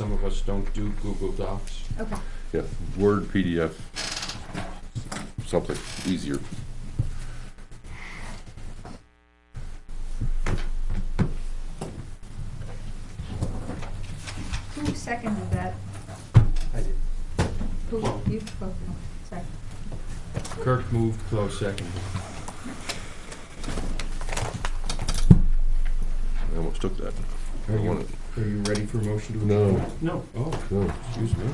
of us don't do Google Docs. Okay. Yeah, Word, PDF, something easier. Who seconded that? I did. Who, you, oh, sorry. Kirk moved, close second. I almost took that. I Are you, wanted- are you ready for motion to? No. adjourn? No, oh, No, excuse me.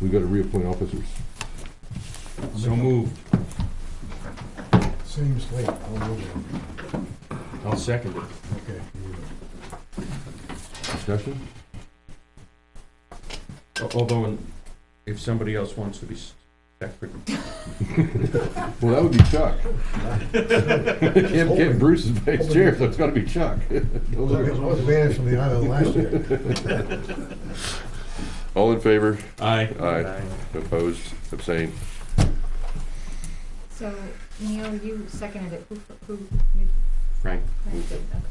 we gotta reappoint officers. So moved. Seems late, all over, I'll second it. okay. Discussion? Al- Although, in- if somebody else wants to be s- secretary, Well, that would be Chuck. Can't get Bruce as vice chair, so it's gotta be Chuck. I was banished from the island last year. All in favor? aye. Aye. Opposed? Abstained? So, Neil, you seconded it, who, who? Frank. moved it. Okay.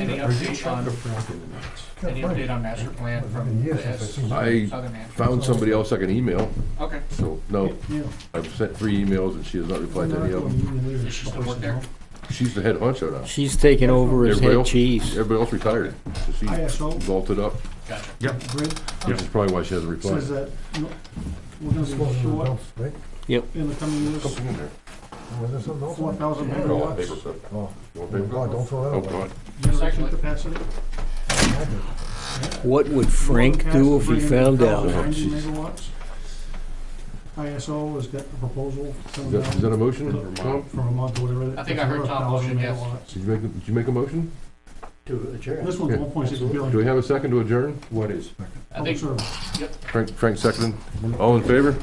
Any Are you update Chuck on, or Frank in the minutes? any update on master plan from Been years the since I've S- seen that. I Southern Manchester? found somebody else I can email, Okay, so, no, Yeah. I've sent three emails and she has not replied to any of them. does she still work there? She's the head honcho now. She's taking over as Everybody head else- cheese. Everybody else retired, so she ISO vaulted up, Gotcha. grid which is probably why she hasn't says uh, replied. that no- we're gonna be short Right? in the coming years, Something in there. Was there something else? four thousand I don't want paper megawatts, clip. Oh, You want oh paper my God, clip? don't throw that Oh, away. God. generation capacity. What would Frank do if he found out? Oh, Ninety jeez. megawatts. ISO has got a proposal Is coming that, is that a down motion, Tom? from Vermont or whatever. I think I heard Tom motion, yes. Did you make, did you make a motion? To adjourn. This one's Yeah. one point six Do billion. we have a second to adjourn? What is? I think, Frank, Frank seconded. All in favor?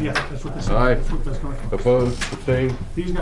Yeah, that's what this, Aye. that's what that's coming from. Opposed? Abstained? These guys